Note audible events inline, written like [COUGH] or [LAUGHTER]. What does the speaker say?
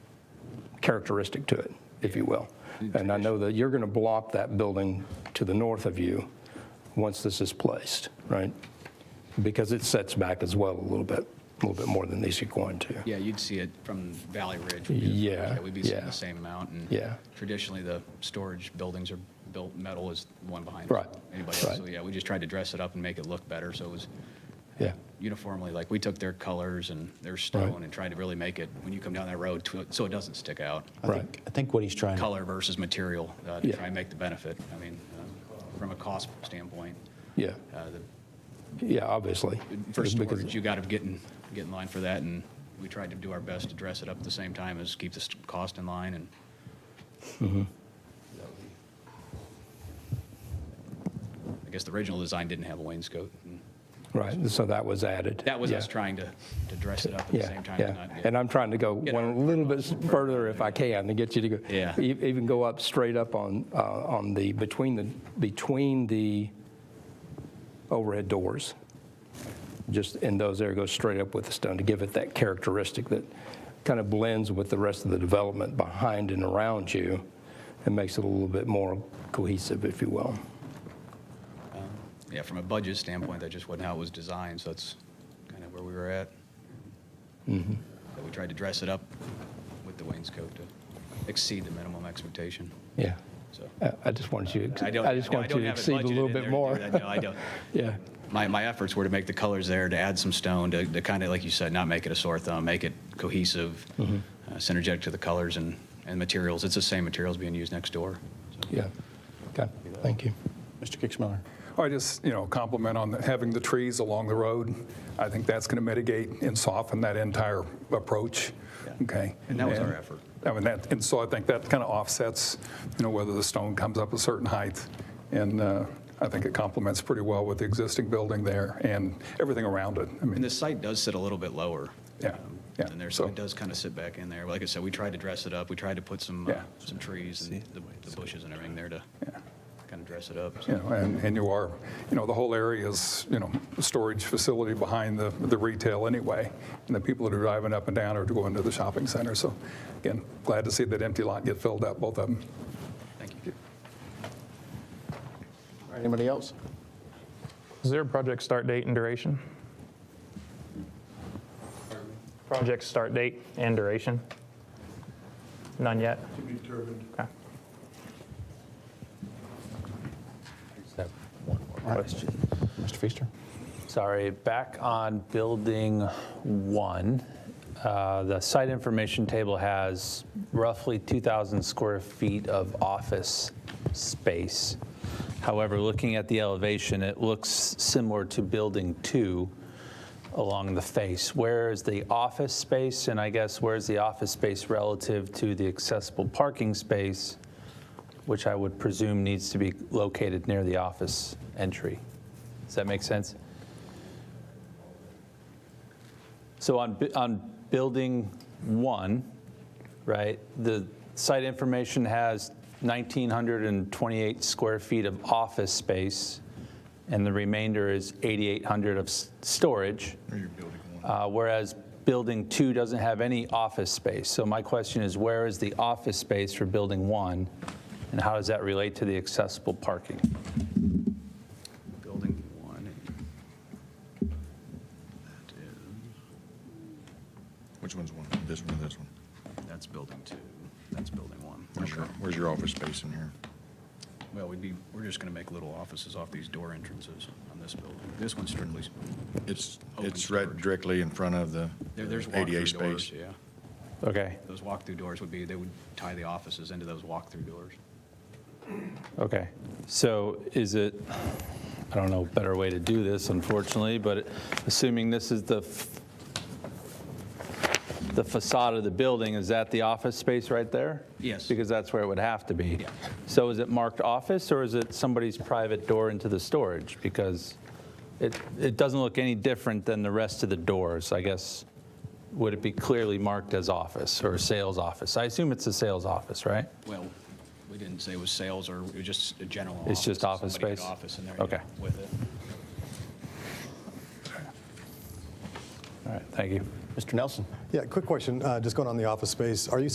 characteristic to it, if you will. And I know that you're going to block that building to the north of you once this is placed, right? Because it sets back as well a little bit, a little bit more than these are going to. Yeah, you'd see it from Valley Ridge. Yeah, We'd be seeing yeah. the same amount. and Yeah. Traditionally, the storage buildings are built, metal is the one behind. Right, Anybody else. right. So, yeah, we just tried to dress it up and make it look better, so it was Yeah, uniformly, like, we took their colors and their stone and tried to really make it, when you come down that road, to- so it doesn't stick out. right. I think what he's trying, to Color versus material, uh, to Yeah. try and make the benefit. I mean, uh, from a cost standpoint, Yeah, uh, the yeah, obviously. for Because- storage, you got to get in, get in line for that, and we tried to do our best to dress it up at the same time as keep the st- cost in line, and Mm-hmm. I guess the original design didn't have a wainscot. and Right, so that was added. That was us Yeah. trying to, to dress it up at the Yeah, same time. yeah. not- And I'm trying to go Get one our- a little bit further if I can to get you to go. Yeah. e- Even go up straight up on, uh, on the, between the, between the overhead doors. Just in those there, go straight up with the stone to give it that characteristic that kind of blends with the rest of the development behind and around you and makes it a little bit more cohesive, if you will. Yeah, from a budget standpoint, that just wasn't how it was designed, so that's kind of where we were at. Mm-hmm. But we tried to dress it up with the wainscot to exceed the minimum expectation, Yeah. so. I- I just wanted you, I to- don't. I just no, wanted don't you to have it exceed a budgeted little bit in there to do more. that. No, [LAUGHS] I don't. Yeah, My, my efforts were to make the colors there, to add some stone, to, to kind of, like you said, not make it a sore thumb, make it cohesive, Mm-hmm. uh, synergetic to the colors and, and materials. It's the same materials being used next door. So, yeah. Okay, thank you. Mr. Kixmiller. I just, you know, compliment on the- having the trees along the road. I think that's going to mitigate and soften that entire approach, okay? And that was our effort. I mean, that, and so I think that kind of offsets, you know, whether the stone comes up a certain height. And uh, I think it complements pretty well with the existing building there and everything around it. I And mean, the site does sit a little bit lower. Yeah, yeah, And there, so so- it does kind of sit back in there. Like I said, we tried to dress it up. We tried to put some, uh, Yeah. some trees and the the bushes and everything there to kind of dress it up. you know, and, and you are, you know, the whole area is, you know, a storage facility behind the, the retail anyway. And the people that are driving up and down are going to the shopping center. So again, glad to see that empty lot get filled up, both of them. Thank you. Anybody else? Is there a project start date and duration? Project start date and duration? None yet? To be determined. Okay. Question. Mr. Feaster? Sorry, back on building one, uh, the site information table has roughly 2,000 square feet of office space. However, looking at the elevation, it looks similar to building two along the face. Where is the office space, and I guess where's the office space relative to the accessible parking space, which I would presume needs to be located near the office entry? Does that make sense? So on, bu- on building one, right, the site information has 1,928 square feet of office space, and the remainder is 8,800 of s- storage. Uh, Whereas building two doesn't have any office space. So my question is, where is the office space for building one? And how does that relate to the accessible parking? Building one. That Which one's one? This one or this one? is, that's building two. That's building one. Where's your, Okay. where's your office space in here? Well, we'd be, we're just going to make little offices off these door entrances on this building. This one's strictly, It's, Open it's right storage. directly in front of the there, there's ADA walkthrough doors, space. yeah. Okay, Those walkthrough doors would be, they would tie the offices into those walkthrough doors. Okay, so is it, I don't know, a better way to do this unfortunately, but assuming this is the, f- the facade of the building, is that the office space right there? Yes. Because that's where it would have to be. Yeah. So is it marked office or is it somebody's private door into the storage? Because it, it doesn't look any different than the rest of the doors, I guess. Would it be clearly marked as office or sales office? I assume it's a sales office, right? Well, we didn't say it was sales or it was just a general office. It's just office Somebody had space? office in there. Okay. yeah, With it. All right, thank you. Mr. Nelson? Yeah, quick question, uh, just going on the office space. Are you